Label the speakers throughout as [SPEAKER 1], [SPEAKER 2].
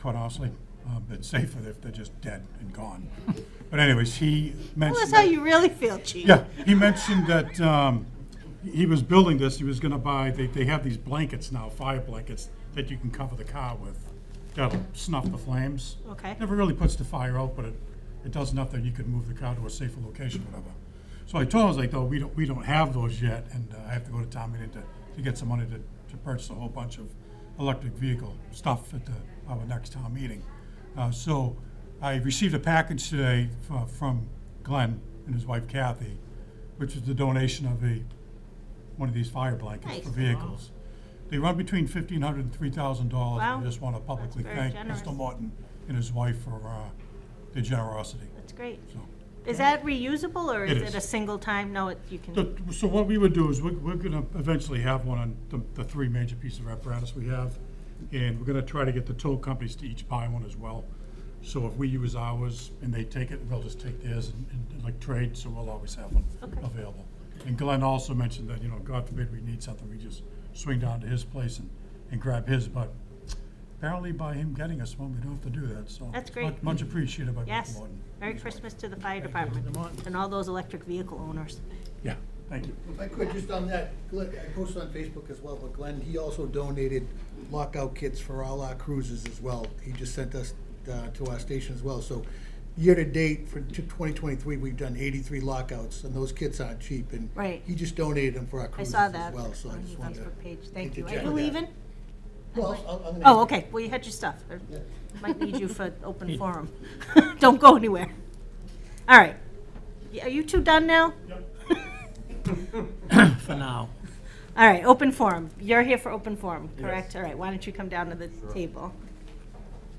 [SPEAKER 1] quite honestly. Uh, But safer if they're just dead and gone. But anyways, he mentioned.
[SPEAKER 2] Tell us how
[SPEAKER 1] that-
[SPEAKER 2] you really feel, chief.
[SPEAKER 1] Yeah, he mentioned that um, he was building this, he was gonna buy, they, they have these blankets now, fire blankets, that you can cover the car with. That'll snuff the flames.
[SPEAKER 2] Okay.
[SPEAKER 1] Never really puts the fire out, but it, it does enough that you can move the car to a safer location, whatever. So I told him, I was like, though, we don't, we don't have those yet, and uh, I have to go to town meeting to, to get some money to, to purchase a whole bunch of electric vehicle stuff at the, our next town meeting. Uh, so I received a package today fro- from Glenn and his wife Kathy, which is the donation of a, one of these fire blankets
[SPEAKER 2] Nice.
[SPEAKER 1] for vehicles. They run between fifteen hundred and three thousand dollars.
[SPEAKER 2] Wow.
[SPEAKER 1] I just want to publicly
[SPEAKER 2] very
[SPEAKER 1] thank
[SPEAKER 2] generous.
[SPEAKER 1] Mr. Morton and his wife for uh, their generosity.
[SPEAKER 2] That's great.
[SPEAKER 1] So,
[SPEAKER 2] Is that reusable or
[SPEAKER 1] It
[SPEAKER 2] is
[SPEAKER 1] is.
[SPEAKER 2] it a single time? No, it, you can,
[SPEAKER 1] The- so what we would do is, we're, we're gonna eventually have one on the, the three major pieces of apparatus we have, and we're gonna try to get the tow companies to each buy one as well. So if we use ours and they take it, they'll just take theirs and, and like trade, so we'll always have one
[SPEAKER 2] Okay.
[SPEAKER 1] available. And Glenn also mentioned that, you know, God forbid we need something, we just swing down to his place and, and grab his, but apparently by him getting us one, we don't have to do that, so.
[SPEAKER 2] That's
[SPEAKER 1] it's
[SPEAKER 2] great.
[SPEAKER 1] much- Much appreciated by Mr.
[SPEAKER 2] yes.
[SPEAKER 1] Morton.
[SPEAKER 2] Merry Christmas to the fire department and all those electric vehicle owners.
[SPEAKER 1] Yeah, thank you.
[SPEAKER 3] If I could, just on that, Glenn, I posted on Facebook as well, but Glenn, he also donated lockout kits for all our cruises as well. He just sent us, uh, to our station as well, so year-to-date for twenty twenty-three, we've done eighty-three lockouts, and those kits aren't cheap, and
[SPEAKER 2] Right.
[SPEAKER 3] he just donated them for our
[SPEAKER 2] I
[SPEAKER 3] cruises
[SPEAKER 2] saw
[SPEAKER 3] as
[SPEAKER 2] that
[SPEAKER 3] well,
[SPEAKER 2] on
[SPEAKER 3] so I just
[SPEAKER 2] your
[SPEAKER 3] wanted to.
[SPEAKER 2] Facebook page. Thank you. Are
[SPEAKER 3] interject
[SPEAKER 2] you
[SPEAKER 3] that.
[SPEAKER 2] leaving?
[SPEAKER 3] Well, I'm- I'm gonna-
[SPEAKER 2] Oh, okay. Well, you had your stuff. Or
[SPEAKER 3] Yeah.
[SPEAKER 2] Might need you for open forum. Don't go anywhere. All right. Y- Are you two done now?
[SPEAKER 4] for now.
[SPEAKER 2] All right, open forum. You're here for open forum, correct? All right, why don't you come down to the table?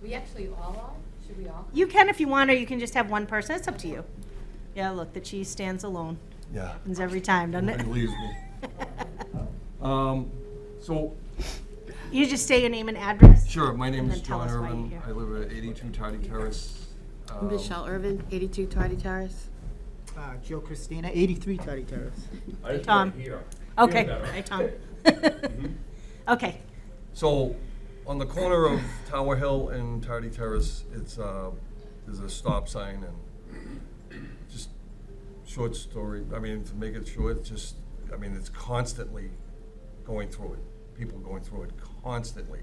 [SPEAKER 5] We actually all are? Should we all?
[SPEAKER 2] You can if you want, or you can just have one person. It's up to you. Yeah, look, the cheese stands alone.
[SPEAKER 6] Yeah.
[SPEAKER 2] Happens every time, doesn't
[SPEAKER 6] Nobody
[SPEAKER 2] it?
[SPEAKER 6] leaves me. Um, so,
[SPEAKER 2] You just say your name and address?
[SPEAKER 6] sure, my name
[SPEAKER 2] And
[SPEAKER 6] is
[SPEAKER 2] then tell
[SPEAKER 6] John
[SPEAKER 2] us why you're
[SPEAKER 6] Irvin.
[SPEAKER 2] here.
[SPEAKER 6] I live at 82 Toddy Terrace. Um,
[SPEAKER 7] Michelle Irvin, 82 Tardy Terrace.
[SPEAKER 8] Uh, Joe Christina, 83 Toddy Terrace.
[SPEAKER 9] I just
[SPEAKER 2] Tom.
[SPEAKER 9] want to hear.
[SPEAKER 2] Okay,
[SPEAKER 9] better.
[SPEAKER 2] hi, Tom. Okay,
[SPEAKER 6] So, on the corner of Tower Hill and Tardy Terrace, it's, uh, there's a stop sign and just short story, I mean, to make it short, just, I mean, it's constantly going through it, people going through it constantly.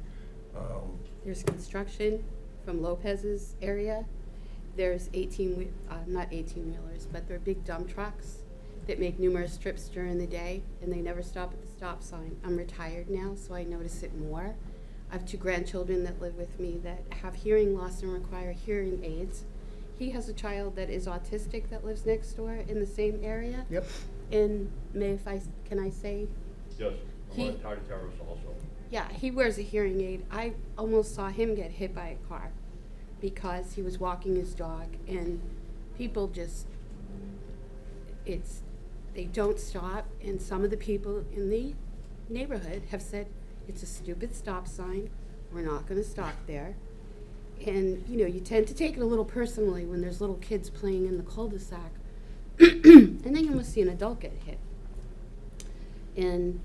[SPEAKER 6] Um,
[SPEAKER 7] There's construction from Lopez's area. There's 18, wheel- uh, not 18-wheelers, but they're big dump trucks that make numerous trips during the day, and they never stop at the stop sign. I'm retired now, so I notice it more. I have two grandchildren that live with me that have hearing loss and require hearing aids. He has a child that is autistic that lives next door in the same area.
[SPEAKER 8] Yep.
[SPEAKER 7] And may if I, s- can I say
[SPEAKER 9] Yes, I'm
[SPEAKER 7] He-
[SPEAKER 9] on Tardy Terrace also.
[SPEAKER 7] Yeah, he wears a hearing aid. I almost saw him get hit by a car because he was walking his dog and people just it's they don't stop and some of the people in the neighborhood have said it's a stupid stop sign. We're not going to stop there. And you know, you tend to take it a little personally when there's little kids playing in the cul-de-sac. and then you almost see an adult get hit. And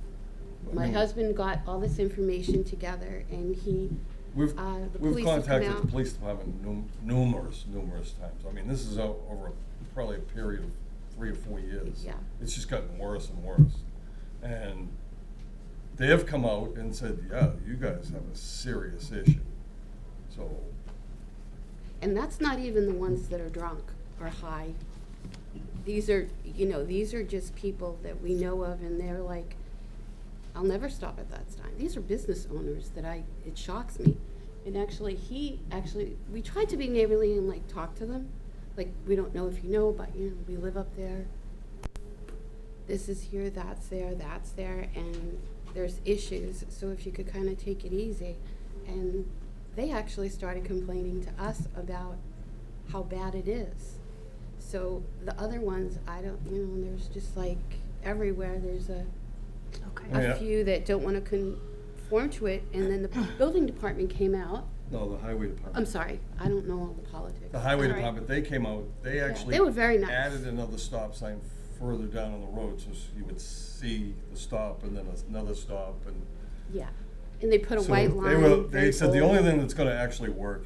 [SPEAKER 7] my husband got all this information together and he,
[SPEAKER 6] We've,
[SPEAKER 7] Uh, the
[SPEAKER 6] we've
[SPEAKER 7] police have come
[SPEAKER 6] contacted the
[SPEAKER 7] out.
[SPEAKER 6] police department num- numerous, numerous times. I mean, this is o- over a- probably a period of three or four years.
[SPEAKER 7] Yeah.
[SPEAKER 6] It's just gotten worse and worse. And they have come out and said, yeah, you guys have a serious issue. So,
[SPEAKER 7] and that's not even the ones that are drunk or high. These are, you know, these are just people that we know of and they're like, I'll never stop at that sign. These are business owners that I, it shocks me. And actually, he, actually, we tried to be neighborly and like talk to them. Like, we don't know if you know, but you know, we live up there. This is here, that's there, that's there, and there's issues, so if you could kind of take it easy. And they actually started complaining to us about how bad it is. So the other ones, I don't, you know, there's just like everywhere, there's a,
[SPEAKER 2] okay.
[SPEAKER 6] Oh, Yeah.
[SPEAKER 7] a few that don't want to conform to it, and then the building department came out.
[SPEAKER 6] no, the highway
[SPEAKER 7] I'm
[SPEAKER 6] department.
[SPEAKER 7] sorry, I don't know all the politics.
[SPEAKER 6] The highway
[SPEAKER 2] All right.
[SPEAKER 6] department, they came out, they actually.
[SPEAKER 7] they were very nice.
[SPEAKER 6] Added another stop sign further down on the road, so s- you would see the stop and then another stop and.
[SPEAKER 7] Yeah, and they put a
[SPEAKER 6] So
[SPEAKER 7] white
[SPEAKER 6] they
[SPEAKER 7] line.
[SPEAKER 6] were- They
[SPEAKER 7] very
[SPEAKER 6] said the
[SPEAKER 7] bold.
[SPEAKER 6] only thing that's gonna actually work